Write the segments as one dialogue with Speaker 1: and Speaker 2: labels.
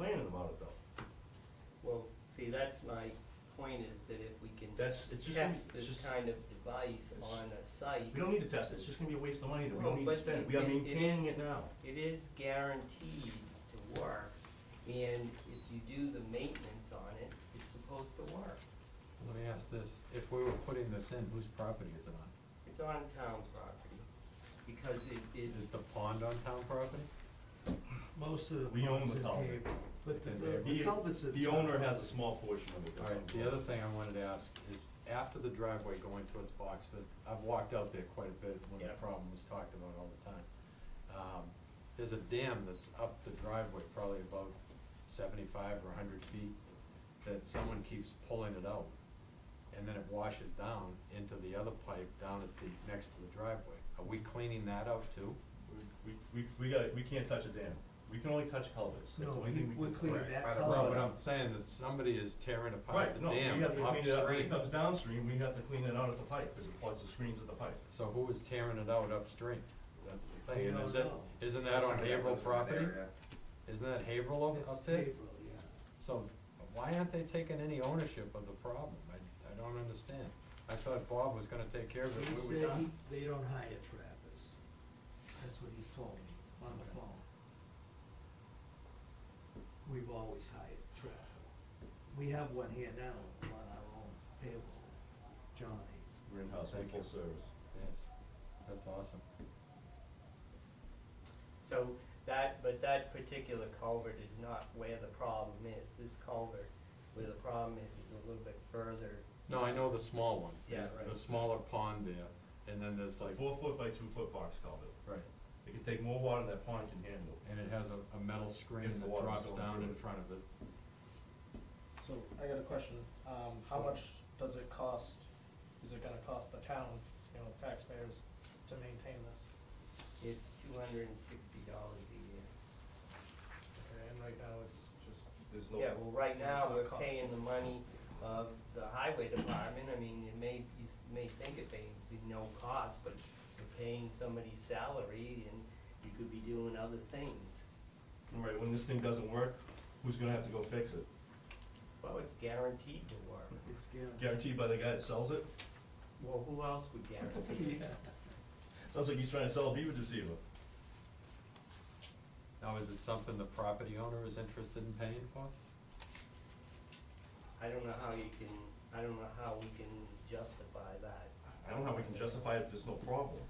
Speaker 1: about it though.
Speaker 2: Well, see, that's my point is that if we can
Speaker 1: That's, it's just,
Speaker 2: test
Speaker 1: it's
Speaker 2: this
Speaker 1: just,
Speaker 2: kind of device
Speaker 1: it's-
Speaker 2: on a site,
Speaker 1: we don't need to test it, it's just gonna be a waste of money that we
Speaker 2: No,
Speaker 1: don't need to
Speaker 2: but
Speaker 1: spend.
Speaker 2: it-
Speaker 1: We are
Speaker 2: it- it
Speaker 1: maintaining
Speaker 2: is-
Speaker 1: it now.
Speaker 2: it is guaranteed to work. And if you do the maintenance on it, it's supposed to work.
Speaker 3: Let me ask this, if we were putting this in, whose property is it on?
Speaker 2: It's on town property because it
Speaker 3: Is
Speaker 2: is,
Speaker 3: the pond on town property?
Speaker 4: Most of the
Speaker 1: We own
Speaker 4: ones
Speaker 1: the
Speaker 4: in
Speaker 1: culvert.
Speaker 4: paved, but
Speaker 3: It's
Speaker 4: the,
Speaker 3: in
Speaker 4: the-
Speaker 3: there.
Speaker 4: the
Speaker 1: He-
Speaker 4: culvert's in
Speaker 1: The
Speaker 4: town.
Speaker 1: owner has a small portion of it.
Speaker 3: All right, the other thing I wanted to ask is, after the driveway going towards Boxford, I've walked out there quite a bit when
Speaker 1: Yeah.
Speaker 3: the problem was talked about all the time. Um, there's a dam that's up the driveway, probably about seventy-five or hundred feet, that someone keeps pulling it out. And then it washes down into the other pipe down at the, next to the driveway. Are we cleaning that out too?
Speaker 1: We, we, we gotta, we can't touch a dam. We can only touch culverts. That's the
Speaker 4: No,
Speaker 1: only
Speaker 4: he-
Speaker 1: thing we
Speaker 4: we're
Speaker 1: can-
Speaker 4: cleaning
Speaker 1: Right.
Speaker 4: that
Speaker 1: Right.
Speaker 4: culvert
Speaker 3: No, but
Speaker 4: up.
Speaker 3: I'm saying that somebody is tearing apart
Speaker 1: Right,
Speaker 3: the
Speaker 1: no, we
Speaker 3: dam
Speaker 1: have to clean it up, when it
Speaker 3: upstream.
Speaker 1: comes downstream, we have to clean it out at the pipe, cause it plugs the screens at the pipe.
Speaker 3: So who is tearing it out upstream? That's the
Speaker 4: We
Speaker 3: thing, and
Speaker 4: don't
Speaker 3: is it,
Speaker 4: know.
Speaker 3: isn't that on Haverhill property? Isn't that Haverhill up-
Speaker 4: It's
Speaker 3: up there?
Speaker 4: April, yeah.
Speaker 3: So why aren't they taking any ownership of the problem? I, I don't understand. I thought Bob was gonna take care of it,
Speaker 4: He
Speaker 3: we
Speaker 4: said
Speaker 3: were
Speaker 4: he,
Speaker 3: done.
Speaker 4: they don't hire trappers. That's what he told me on the phone. We've always hired trapper. We have one here now on our own payroll, Johnny.
Speaker 1: We're in-house, we're
Speaker 3: Thank
Speaker 1: full
Speaker 3: you.
Speaker 1: service.
Speaker 3: Yes, that's awesome.
Speaker 2: so that, but that particular culvert is not where the problem is. This culvert, where the problem is, is a little bit further.
Speaker 3: No, I know the small one.
Speaker 2: Yeah,
Speaker 3: the-
Speaker 2: right.
Speaker 3: The smaller pond there, and then
Speaker 1: It's
Speaker 3: there's
Speaker 1: like
Speaker 3: like,
Speaker 1: four foot by two foot box culvert.
Speaker 3: right,
Speaker 1: It can take more water than that pond can handle.
Speaker 3: and it has a, a metal screen
Speaker 1: If the
Speaker 3: that
Speaker 1: water's
Speaker 3: drops
Speaker 1: going
Speaker 3: down
Speaker 1: through
Speaker 3: in
Speaker 1: it.
Speaker 3: front of it.
Speaker 5: So I got a question, um, how much does it cost, is it gonna cost the town, you know, taxpayers to maintain this?
Speaker 2: It's two hundred and sixty dollars a year.
Speaker 5: Okay, And right now it's just,
Speaker 1: There's no,
Speaker 2: Yeah, well, right now, we're
Speaker 5: It's not
Speaker 2: paying the money of the highway department, I mean, it may, you s- may think it may be no cost, but you're paying somebody's salary and you could be doing other things.
Speaker 1: right, when this thing doesn't work, who's gonna have to go fix it?
Speaker 2: Well, it's guaranteed to work.
Speaker 4: It's guaranteed.
Speaker 1: Guaranteed by the guy that sells it?
Speaker 2: Well, who else would guarantee it?
Speaker 1: Sounds like he's trying to sell a beaver deceiver.
Speaker 3: Now, is it something the property owner is interested in paying for?
Speaker 2: I don't know how you can, I don't know how we can justify that.
Speaker 1: I don't know how we can justify it if there's no problem.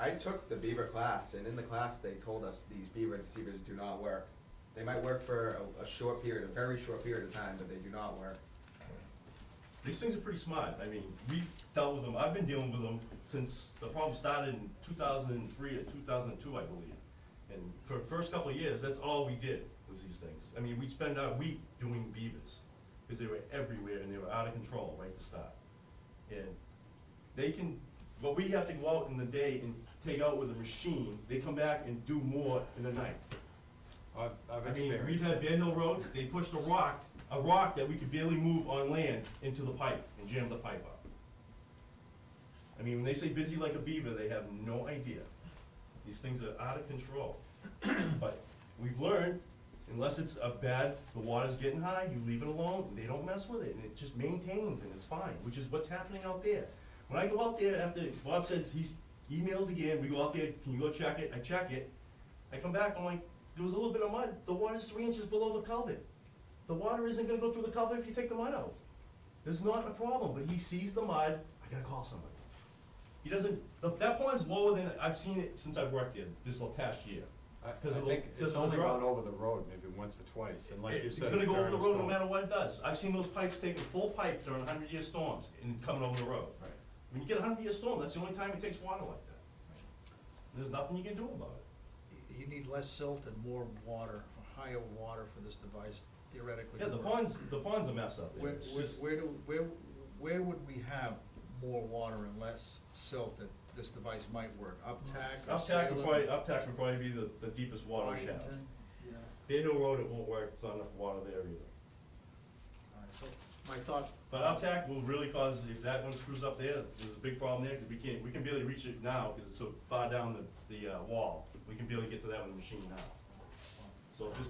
Speaker 6: I took the beaver class, and in the class, they told us these beaver deceivers do not work. They might work for a, a short period, a very short period of time, but they do not work.
Speaker 1: These things are pretty smart. I mean, we've dealt with them, I've been dealing with them since the problem started in two thousand and three or two thousand and two, I believe. And for the first couple of years, that's all we did was these things. I mean, we'd spend our week doing beavers, because they were everywhere and they were out of control right to start. And they can, but we have to go out in the day and take out with a machine, they come back and do more in the night.
Speaker 3: I've, I've
Speaker 1: I mean,
Speaker 3: experienced.
Speaker 1: we've
Speaker 3: it.
Speaker 1: had Bear Hill Road, they pushed a rock, a rock that we could barely move on land into the pipe and jammed the pipe up. I mean, when they say busy like a beaver, they have no idea. These things are out of control. But we've learned, unless it's a bad, the water's getting high, you leave it alone, and they don't mess with it, and it just maintains and it's fine, which is what's happening out there. When I go out there after, Bob says he's emailed again, we go out there, can you go check it? I check it, I come back, I'm like, there was a little bit of mud, the water's three inches below the culvert. The water isn't gonna go through the culvert if you take the mud out. There's not a problem, but he sees the mud, I gotta call somebody. He doesn't, the- that pond's lower than, I've seen it since I've worked here, this little past year.
Speaker 3: I, I
Speaker 1: 'Cause of the-
Speaker 3: think
Speaker 1: because
Speaker 3: it's
Speaker 1: of the
Speaker 3: only
Speaker 1: drought.
Speaker 3: gone over the road maybe once or twice, and like
Speaker 1: It-
Speaker 3: you said,
Speaker 1: It's gonna go over
Speaker 3: during
Speaker 1: the
Speaker 3: a
Speaker 1: road no
Speaker 3: storm.
Speaker 1: matter what it does. I've seen those pipes taking full pipe during hundred year storms and coming over the road.
Speaker 3: Right.
Speaker 1: When you get a hundred year storm, that's the only time it takes water like that. There's nothing you can do about it.
Speaker 7: You need less silt and more water, or higher water for this device theoretically.
Speaker 1: Yeah,
Speaker 7: to
Speaker 1: the
Speaker 7: work.
Speaker 1: pond's, the pond's a mess up there.
Speaker 7: Where,
Speaker 1: It's
Speaker 7: where,
Speaker 1: just-
Speaker 7: where do, where, where would we have more water and less silt that this device might work? Uptack or
Speaker 1: Uptack Mm. would
Speaker 7: Salem,
Speaker 1: probably, uptack would probably be the, the deepest water shaft.
Speaker 7: Washington?
Speaker 4: Yeah.
Speaker 1: Bear Hill Road, it won't work, it's not enough water there either.
Speaker 7: All right, so My thought.
Speaker 1: But uptack will really cause, if that one screws up there, there's a big problem there, cause we can't, we can barely reach it now, cause it's so far down the, the, uh, wall. We can barely get to that with a machine now. So if this